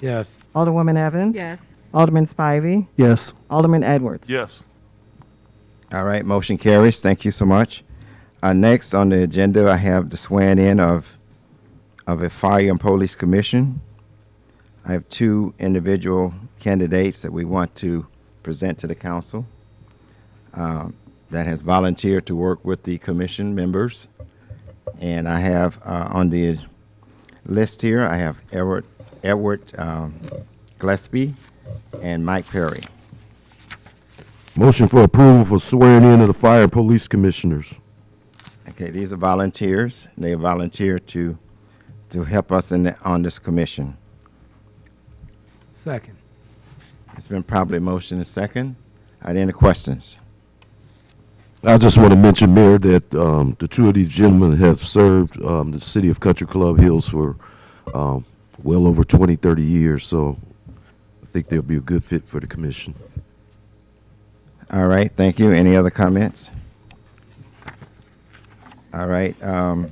Yes. Alderwoman Evans. Yes. Alderman Spivey. Yes. Alderman Edwards. Yes. All right, motion carries. Thank you so much. Uh, next on the agenda, I have the swearing in of, of a fire and police commission. I have two individual candidates that we want to present to the council um, that has volunteered to work with the commission members. And I have uh, on the list here, I have Edward, Edward um, Gillespie and Mike Perry. Motion for approval for swearing in of the fire and police commissioners. Okay, these are volunteers. They volunteer to, to help us in, the- on this commission. Second. It's been probably motion and second. Are there any questions? I just want to mention, Mayor, that um, the two of these gentlemen have served um, the city of Country Club Hills for um, well over 20, 30 years, so I think they'll be a good fit for the commission. All right, thank you. Any other comments? All right, um,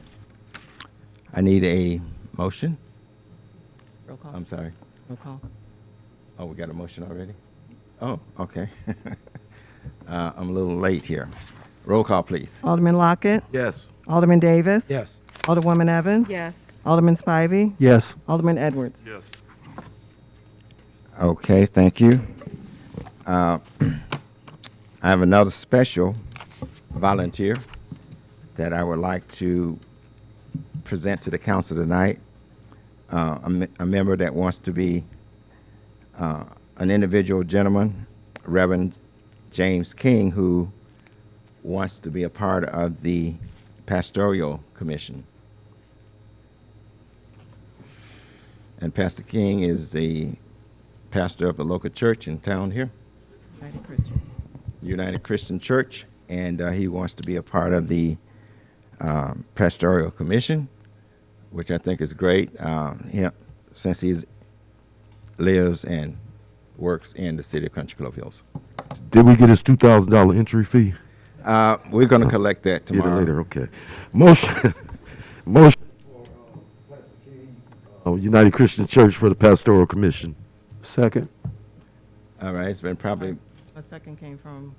I need a motion. Roll call. I'm sorry. Roll call. Oh, we got a motion already? Oh, okay. Uh, I'm a little late here. Roll call, please. Alderman Lockett. Yes. Alderman Davis. Yes. Alderwoman Evans. Yes. Alderman Spivey. Yes. Alderman Edwards. Yes. Okay, thank you. Uh, I have another special volunteer that I would like to present to the council tonight. Uh, a, me- a member that wants to be uh, an individual gentleman, Reverend James King, who wants to be a part of the pastoral commission. And Pastor King is the pastor of a local church in town here, United Christian. United Christian Church, and uh, he wants to be a part of the um, pastoral commission, which I think is great. Um, he, since he lives and works in the city of Country Club Hills, Did we get his $2,000 entry fee? uh, we're going to collect that Get it tomorrow. later, okay. Motion, motion. Oh, United Christian Church for the Pastoral Commission. Second. All right, it's been probably A second came from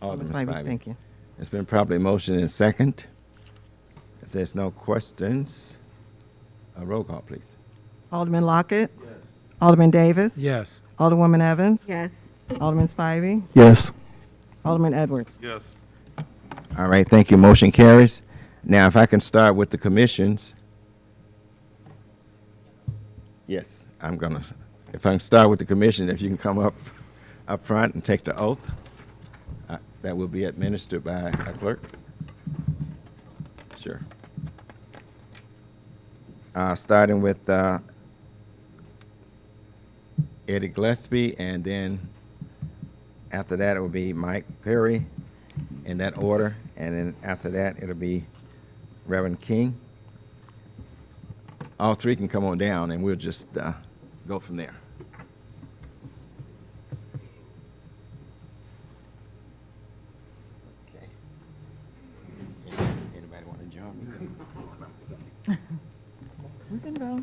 Alderman Alderman Spivey. Spivey. Thank you. It's been probably motion and second. If there's no questions, a roll call, please. Alderman Lockett. Yes. Alderman Davis. Yes. Alderwoman Evans. Yes. Alderman Spivey. Yes. Alderman Edwards. Yes. All right, thank you. Motion carries. Now, if I can start with the commissions. Yes, I'm gonna, if I can start with the commission, if you can come up, up front and take the oath. uh, That will be administered by a clerk. Sure. Uh, starting with, uh, Eddie Gillespie, and then after that, it will be Mike Perry, in that order, and then after that, it'll be Reverend King. All three can come on down, and we'll just uh, go from there. Okay. Anybody want to join me? We can go.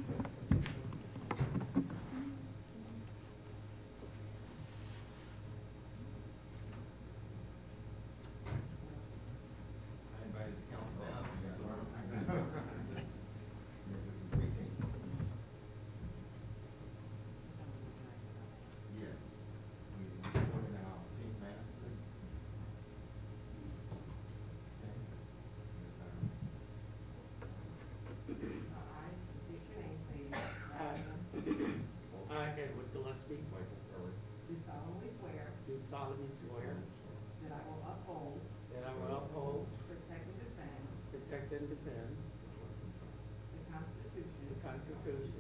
I, Edward Gillespie. Michael Curry. Do solemnly swear. Do solemnly swear. That I will uphold. That I will uphold. Protect and defend. Protect and defend. The Constitution. The Constitution.